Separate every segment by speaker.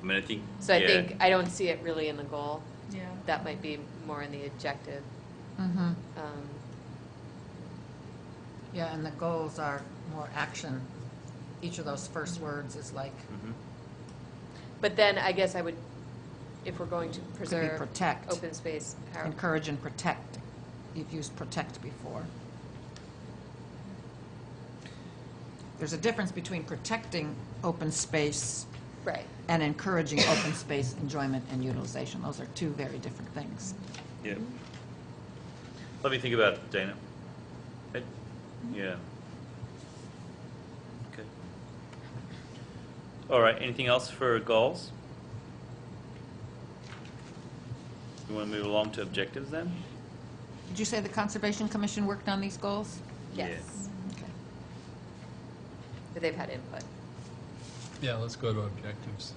Speaker 1: I mean, I think.
Speaker 2: So I
Speaker 1: yeah.
Speaker 2: think, I don't see it really in the goal.
Speaker 3: Yeah.
Speaker 2: That might be more in the objective.
Speaker 4: Mhm.
Speaker 2: Um,
Speaker 4: Yeah, and the goals are more action. Each of those first words is like,
Speaker 1: Mhm.
Speaker 2: But then I guess I would, if we're going to
Speaker 4: could
Speaker 2: preserve.
Speaker 4: be protect,
Speaker 2: Open space, how-
Speaker 4: encourage and protect. You've used protect before. There's a difference between protecting open space
Speaker 2: right,
Speaker 4: and encouraging open space enjoyment and utilization. Those are two very different things.
Speaker 1: Yeah. Let me think about it, Dana. I-
Speaker 2: Mm-hmm.
Speaker 1: Yeah. Okay. All right, anything else for goals? You want to move along to objectives then?
Speaker 4: Did you say the Conservation Commission worked on these goals?
Speaker 1: Yeah.
Speaker 2: yes,
Speaker 4: Okay.
Speaker 2: but they've had input.
Speaker 5: Yeah, let's go to objectives.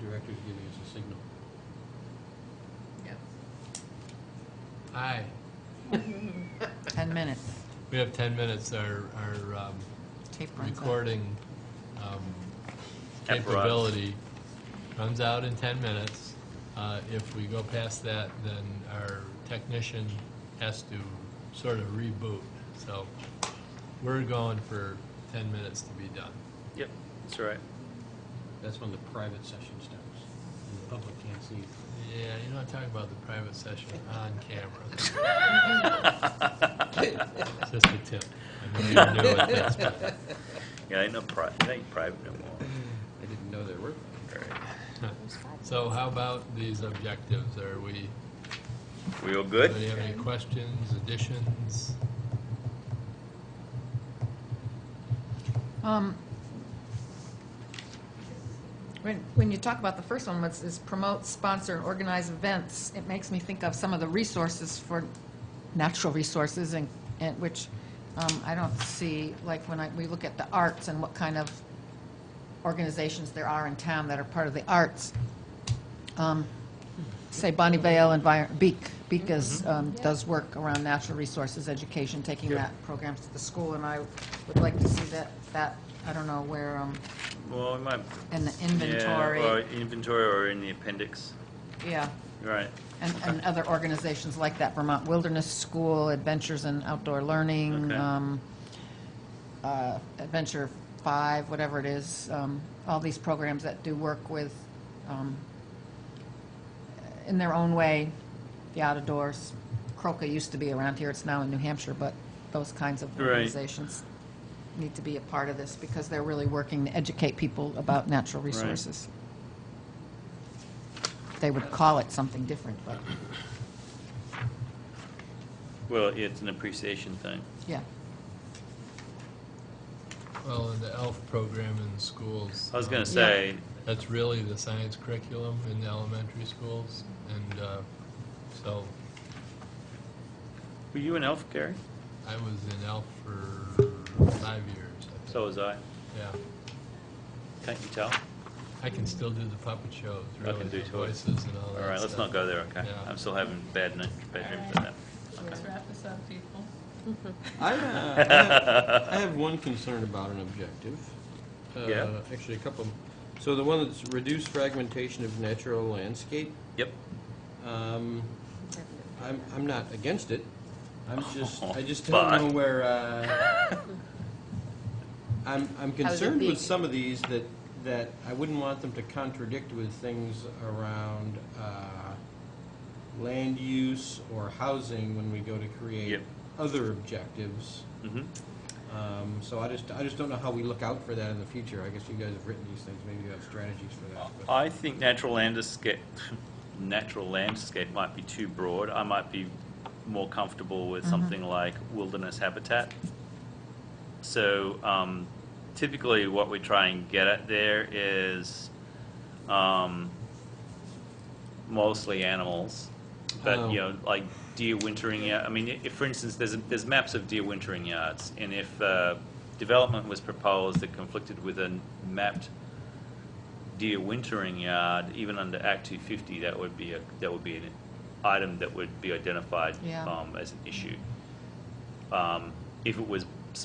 Speaker 5: The director's giving us a signal.
Speaker 2: Yeah.
Speaker 5: Aye.
Speaker 4: 10 minutes.
Speaker 5: We have 10 minutes. Our, our um,
Speaker 4: Tape runs out.
Speaker 5: recording um,
Speaker 1: Apparatus.
Speaker 5: capability runs out in 10 minutes. Uh, If we go past that, then our technician has to sort of reboot. So we're going for 10 minutes to be done.
Speaker 1: Yep, that's all right.
Speaker 6: That's when the private session starts. and The public can't see.
Speaker 5: Yeah, you're not talking about the private session on camera. Just a tip. I know you're new at this, but
Speaker 1: Yeah, ain't no private, ain't private no more.
Speaker 6: I didn't know there were.
Speaker 1: All right.
Speaker 5: So how about these objectives? Are we,
Speaker 1: We all
Speaker 5: do
Speaker 1: good?
Speaker 5: you have any questions, additions?
Speaker 4: Um, When, when you talk about the first one, what's, is promote, sponsor, and organize events, it makes me think of some of the resources for natural resources and, and which um, I don't see, like when I, we look at the arts and what kind of organizations there are in town that are part of the arts. Um, Say Bonnie Vale Envir, Beek, Beek is, um, does work around natural resources education, taking
Speaker 1: Mm-hmm. Yeah.
Speaker 4: that programs to the school, and I would like to see that, that, I don't know where, um,
Speaker 1: Well, we might.
Speaker 4: in the
Speaker 1: yeah, Or
Speaker 4: inventory,
Speaker 1: inventory or in the appendix.
Speaker 4: yeah,
Speaker 1: Right.
Speaker 4: and, and other organizations like that, Vermont Wilderness School, Adventures in Outdoor Learning,
Speaker 1: Okay.
Speaker 4: um, uh, Adventure Five, whatever it is, um, all these programs that do work with, um, in their own way, the out of doors. Croca used to be around here, it's now in New Hampshire, but those kinds of
Speaker 1: Right.
Speaker 4: organizations need to be a part of this because they're really working to educate people about natural resources. They would call it something different, but,
Speaker 1: Well, it's an appreciation thing.
Speaker 4: yeah.
Speaker 5: Well, in the ELF program in schools.
Speaker 1: I was going
Speaker 5: um,
Speaker 1: to say,
Speaker 5: That's really the science curriculum in the elementary schools. And uh, so
Speaker 1: were you an elf, Gary?
Speaker 5: I was in ELF for five years. I think.
Speaker 1: So was I.
Speaker 5: Yeah.
Speaker 1: Can't you tell?
Speaker 5: I can still do the puppet shows,
Speaker 1: I
Speaker 5: really,
Speaker 1: can do
Speaker 5: the
Speaker 1: too.
Speaker 5: voices and all
Speaker 1: All
Speaker 5: that
Speaker 1: right, let's
Speaker 5: stuff.
Speaker 1: not go there, okay?
Speaker 5: Yeah.
Speaker 1: I'm still having bad night, bad dreams
Speaker 3: All
Speaker 1: about that.
Speaker 3: Let's wrap this up, people.
Speaker 6: I, uh, I have- I have one concern about an objective. Uh,
Speaker 1: Yeah.
Speaker 6: Actually, a couple. So the one that's reduced fragmentation of natural landscape,
Speaker 1: Yep.
Speaker 6: um, I'm, I'm not against it. I'm just, I just
Speaker 1: But-
Speaker 6: don't know where, uh, I'm, I'm
Speaker 2: it
Speaker 6: concerned
Speaker 2: being-
Speaker 6: with some of these that, that I wouldn't want them to contradict with things around uh, land use or housing when we go to create
Speaker 1: Yep.
Speaker 6: other objectives.
Speaker 1: Mhm.
Speaker 6: Um, So I just, I just don't know how we look out for that in the future. I guess you guys have written these things, maybe you have strategies for that. but-
Speaker 1: I think natural landscape, natural landscape might be too broad. I might be more comfortable with something like wilderness habitat. So um, typically, what we try and get at there is um, mostly animals, but
Speaker 6: Oh.
Speaker 1: you know, like deer wintering. yard- I mean, if, for instance, there's there's maps of deer wintering yards, and if uh, development was proposed that conflicted with a mapped deer wintering yard, even under Act 250, that would be a, that would be an item that would be identified
Speaker 4: Yeah.
Speaker 1: um, as an issue. Um, If it was